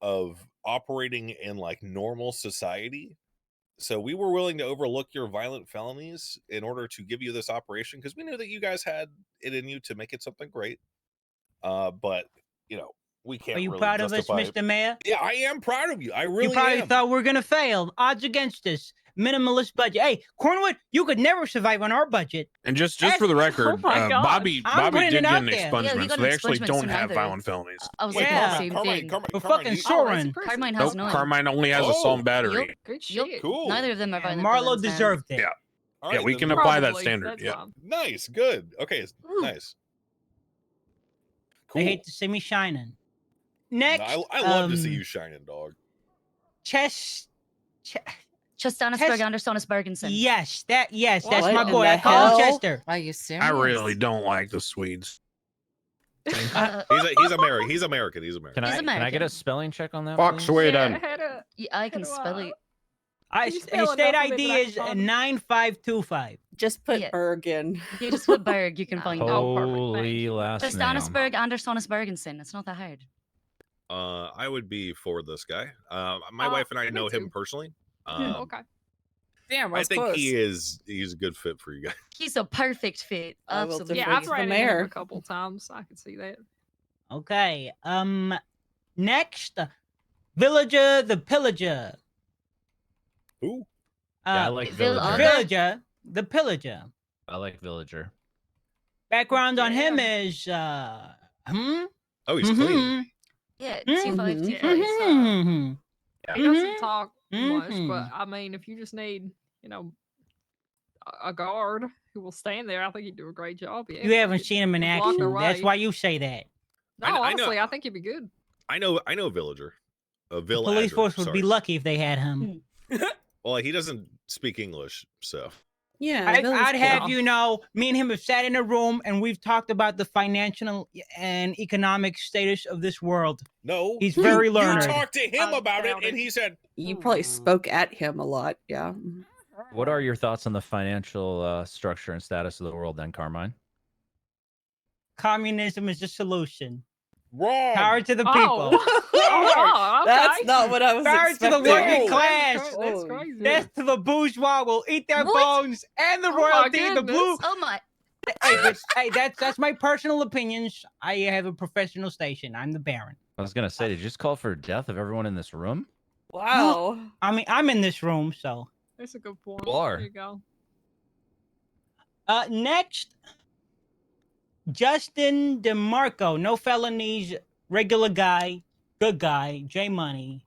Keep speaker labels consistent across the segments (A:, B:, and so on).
A: of operating in like normal society. So we were willing to overlook your violent felonies in order to give you this operation because we knew that you guys had it in you to make it something great. Uh, but you know, we can't.
B: Are you
A: really
B: proud of us,
A: justify it.
B: Mr. Mayor?
A: Yeah, I am proud of you. I really
B: you probably
A: am.
B: thought we are gonna fail. Odds against us. Minimalist budget. Hey, Cornwood, you could never survive on our budget.
C: And just just for the
B: That's-
C: record,
B: oh my
C: uh,
B: God.
C: Bobby
B: I'm putting
C: Bobby
B: it
C: did
B: out
C: get an
B: there. Yeah,
C: expungement.
D: you got
C: so
D: an
C: they actually
D: expungement,
C: don't
D: some
C: have
D: others.
C: violent felonies.
D: I was
A: Wait,
D: thinking the
A: Carmine,
B: Yeah.
D: same
A: Carmine,
D: thing.
A: Carmine,
B: We're
A: Carmine,
B: fucking
A: you-
B: sure.
D: Oh, that's
B: Soren.
D: impressive.
E: Carmine
C: Nope,
E: has none.
C: Carmine only has a
A: Oh.
C: Psalm battery.
D: Yep.
E: Good
D: Yep.
E: shit.
A: Cool.
D: Neither of them are violent.
B: Marlo
D: villains, then.
B: deserved it.
C: Yeah.
A: All
C: Yeah,
A: right,
C: we
A: then
C: can
A: we're-
C: apply that
E: Probably.
C: standard,
E: That's
C: yeah.
E: fine.
A: Nice, good. Okay, it's-
E: Ooh.
A: nice.
B: They hate to see me shining.
A: No,
B: Next,
A: I, I love to see
B: um,
A: you shining, dog.
B: Chess. Che-
D: Chastanus
B: Test-
D: Bergandersonus Bergensen.
B: yes, that yes, that's
F: What
B: my
F: in
B: boy.
F: the
B: I call him
F: hell?
B: Chester.
F: Are you serious?
C: I really don't like the Swedes.
D: Uh,
A: He's a, he's American. He's American. He's American.
G: Can I
D: He's
G: can I get
D: American.
G: a spelling check on that?
H: Fuck
G: please?
H: Sweden.
D: yeah, I can spell it.
B: I,
I: you
B: his
I: spell enough
B: state
I: of it
B: ID
I: like
B: is
I: Tom?
B: nine five two five.
F: Just put
D: Yeah.
F: Berg in.
D: You just put Berg, you can find
I: Oh,
D: out.
I: perfect,
G: Holy last name.
D: Chastanusberg Andersonus Bergensen. It's not that hard.
A: Uh, I would be for this guy. Uh, my
B: Oh,
I: Uh,
A: wife and I
I: me
A: know him
I: too.
A: personally. Um,
I: Okay.
F: Damn,
A: I think he is. He's a good fit for you guys.
D: He's a perfect fit.
F: I will
D: Absolutely.
F: Different
I: Yeah, I've
F: is the
I: read it
F: mayor.
I: a couple times. I can see that.
B: Okay. Um. Next, villager the pillager.
A: Who?
G: Yeah, I
B: Uh,
G: like
D: Vil-
G: villager.
B: villager the pillager.
G: I like villager.
B: Background on him is uh. Hmm.
A: Oh, he's clean.
B: mhm,
D: yeah,
B: Mhm.
A: Mm-hmm.
D: two five two.
I: Mhm.
B: mhm,
I: He
B: mhm.
I: doesn't talk much,
B: Mhm.
I: but I mean, if you just need, you know, a- a guard who will stand there, I think he'd do a great job. Yeah,
B: You haven't seen him in
I: Walk
B: action. That's
I: away.
B: why you say that.
I: No,
A: I kn- I know-
I: honestly, I, think he'd be good.
A: I know. I know. a Villager. A
B: The
A: villager.
B: police force would be
A: sorry.
B: lucky if they had
I: Hmm.
B: him.
A: Well, he doesn't speak English, so
F: Yeah,
B: I,
F: villain's
B: I'd have
F: cool.
B: you know, me and him have sat in a room and we've talked about the financial and economic status of this world.
A: no.
B: He's
I: Hmm.
B: very
A: you
B: learned.
A: talked to him
B: Uh,
I: I
A: about it,
I: doubt
A: and
I: it.
A: he said,
F: You
I: Mm.
F: probably spoke at him a lot. Yeah.
G: What are your thoughts on the financial uh, structure and status of the world then, Carmine?
B: Communism is the solution.
A: "Wrong."
B: Power to the
I: Oh.
B: people.
I: Oh,
F: That's
I: okay.
F: not what I was
B: Power to the
F: expecting.
B: working
A: Whoa.
B: class.
I: That's cra- That's
F: Oh,
I: crazy.
B: Death to the bourgeois will eat their
D: What?
B: bones and the
I: Oh my
B: royalty. the
I: goodness.
B: blue.
D: Oh my.
B: Hey, but- hey, that's that's my personal opinions. I have a professional station. I'm the Baron.
G: I was gonna say, did you just call for death of everyone in this room?
F: Wow.
B: I mean, I'm in this room, so.
I: That's a good point.
G: Bar.
I: There you go.
B: Uh, next, Justin DeMarco, no felonies, regular guy, good guy, J Money,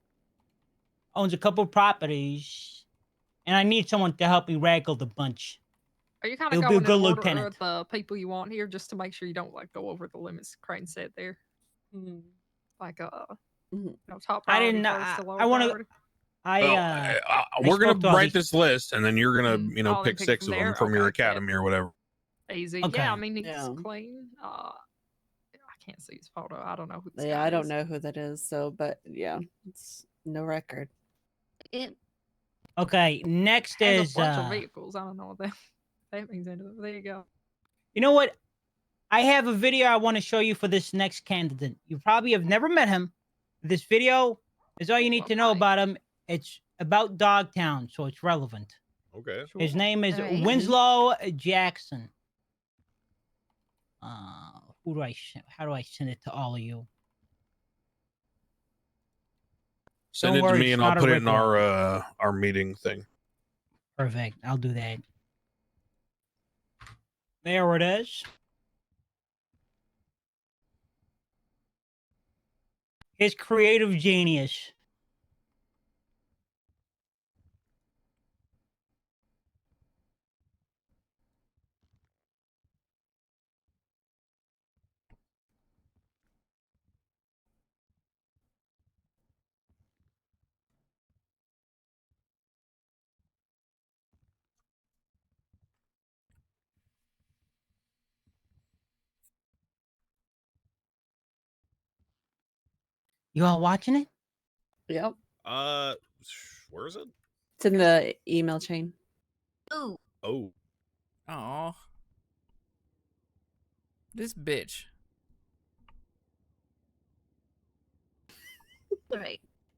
B: owns a couple properties, and I need someone to help me raggle the bunch.
I: Are you kind
B: He'll
I: of
B: be a
I: going in
B: good
I: order
B: lieutenant.
I: of the people you want here just to make sure you don't like go over the limits? Crane said there,
F: Mhm.
I: like uh,
F: Mhm.
I: you know, top.
B: I
I: priority
B: didn't-
I: first
B: I-
I: to lower
B: I wanna-
I: priority.
B: I
C: Well,
B: uh,
C: uh, uh,
B: I
C: we're
B: spoke
C: gonna
B: to all
C: write
B: these- Mm-hmm.
C: this list, and then you're gonna,
I: Mm,
C: you know,
I: I'll
C: pick
I: pick
C: six
I: from
C: of them
I: there.
C: from your
I: Okay, yeah.
C: academy or whatever.
I: easy.
B: Okay.
I: Yeah, I mean he's
F: Yeah.
I: clean. Uh, I can't see his photo. I don't know who. This
F: Yeah,
I: guy
F: I don't
I: is.
F: know who that is. So, but yeah, it's no record.
D: It,
B: okay. Next
I: There's
B: is
I: a bunch
B: uh,
I: of vehicles. I don't know what that, that means. Into it. There you go.
B: you know what? I have a video I want to show you for this next candidate. You probably have never met him. This video is all you need to know
I: Okay.
B: about him. It's about Dogtown, so it's relevant.
A: "Okay,
B: His name is
D: Alright.
B: Winslow Jackson. Uh, who do I sh- how do I send it to all of you?
C: Send
B: Don't
C: it to
B: worry,
C: me,
B: it's
C: and
B: not
C: I'll
B: a
C: put it in
B: ripple.
C: our uh, our meeting thing.
B: Perfect. I'll do that. There it is. His creative genius. You all watching it?
F: Yep.
A: uh, where is it?
F: It's in the email chain.
D: ooh,
A: Oh,
E: Aw. This bitch.
D: All right.